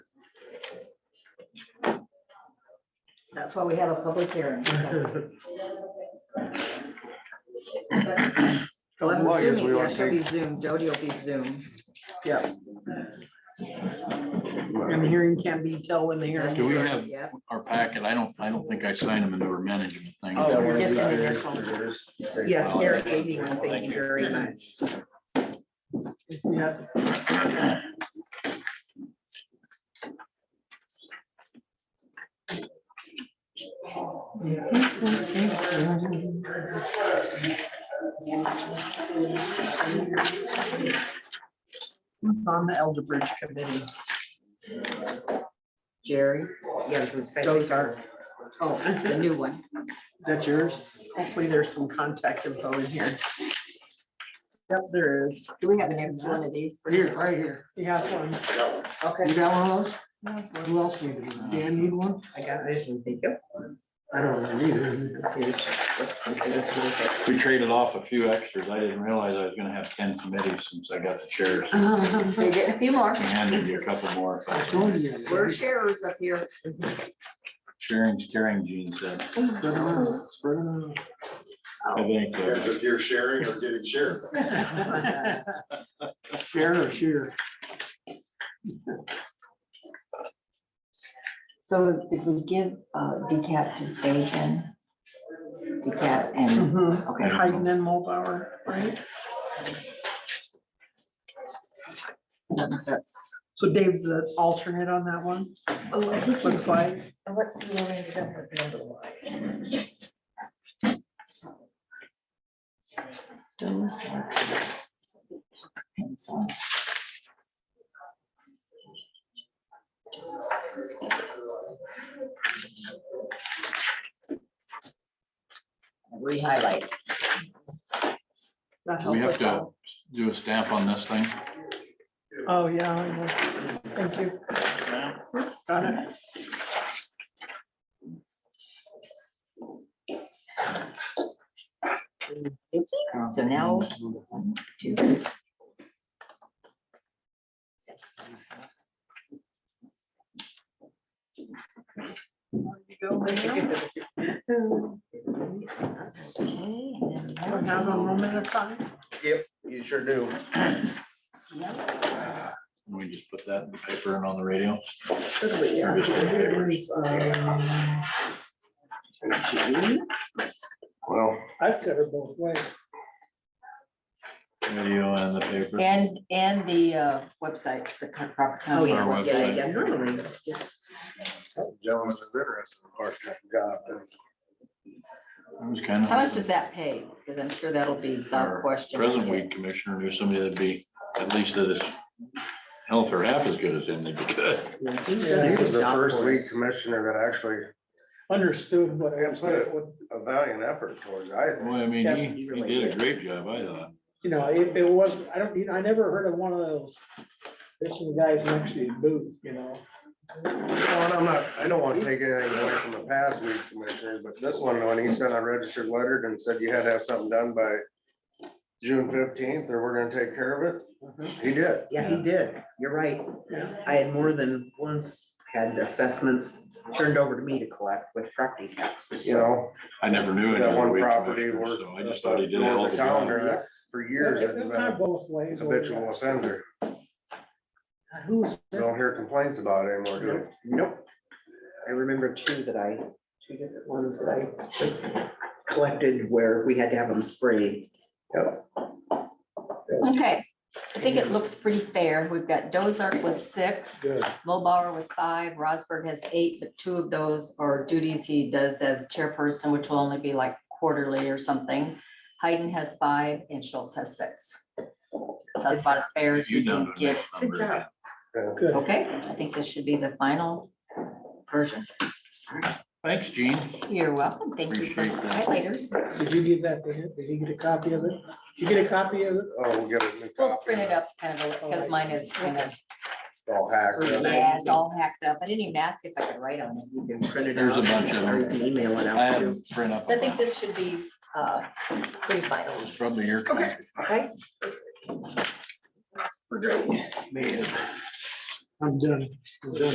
That's why we have a public hearing. So I'm Well, I guess assuming, yeah, we wanna she'll be Zoom, Jody will be Zoom. Yeah. And the hearing can't be till when the hearing. Do we That's have- it, Yep, Our packet, I don't, I don't think I signed them into our management thing. Oh, That was- just an initial. Yes, Eric Avion, thank Oh, Thank you you. very much. Yeah, Who's on the Elder Bridge Committee? Jerry, Those are, oh, the new one. that's yours. Hopefully there's some contact info in here. Yep, there is. Do we have an extra one of these? Here, right here. He has one. Okay. You got one of those? Who else needed one? Dan need one? I got it. Thank you. I don't know either. We traded off a few extras. I didn't realize I was gonna have ten committees since I got the chairs. So you're getting a few more. I handed you a couple more. I told you. We're sharers up here. Sharing, steering genes. said. Spread around, spread around. uh, I think, Depends uh, if you're sharing or getting shared. Share or share. So did we give uh, decat to Dagan? Decat and, Mhm. okay, Hayden and Mulbauer, right? That's- So Dave's the alternate on that one, oh, he can- looks like. and what's the one ended up with number wise? Those are- and so- Rehighlight. That we helped have us out. to do a stamp on this thing. Oh, yeah, I know. Thank you. Got it. So now. one, two, six. Okay, and then Don't have a moment of time. You sure do. yeah. And we just put that in the paper and on the radio. Yeah, here's, um, Well, I've got her both ways. Radio and the paper. And, and the uh, website, the Crawford Our County. website. normally. gentlemen, it's interesting, of course, that job. I was kind of. How much does that pay? Because I'm sure that'll be the Our question. Present weed commissioner knew somebody that'd be, at least that is health or half as good as him, they'd be good. He was the first weed commissioner that actually understood what I Yeah, was, but- what, a valiant effort towards, it, I think. Boy, I mean, Yeah, he, he did a great job, I thought. you know, it, it wasn't, I don't, I never heard of one of those. This is the guys next to you boot, you know, Well, and I'm not, I don't want to take anything away from the past weed commissioners, but this one, when he sent a registered letter and said you had to have something done by June fifteenth, or we're gonna take care of it, he did. Yeah, he did. You're right. Yeah. I had more than once had assessments turned over to me to collect with property taxes. You know, I never knew any that other one weed property commissioner, where. so I just thought he did a hell of a the job. calendar that for years has it's been kind of a both ways. habitual offender. Who's, Don't hear complaints about it anymore, do we? Nope. I remember two that I, two different ones that I collected where we had to have them sprayed. Okay, I think it looks pretty fair. We've got Dozark with six, good, Mulbauer with five, Rosberg has eight, but two of those are duties he does as chairperson, which will only be like quarterly or something. Hayden has five and Schultz has six. So That's about as fair as You we done can a get. nice number. Good job. good. Okay, I think this should be the final version. Thanks, Gene. You're welcome. Thank you for the Appreciate that. highlighters. Did you give that to him? Did he get a copy of it? Did you get a copy of it? Oh, we'll get a new We'll copy. print it up kind of, because mine is kind of, All hacked. up. yeah, it's all hacked up. I didn't even ask if I could write on it. You can print it There's a out, bunch of Or you them. can email it I out had too. to print up. So I think this should be, uh, pretty final, It's Probably your. copy. okay? I'm done. I'm done.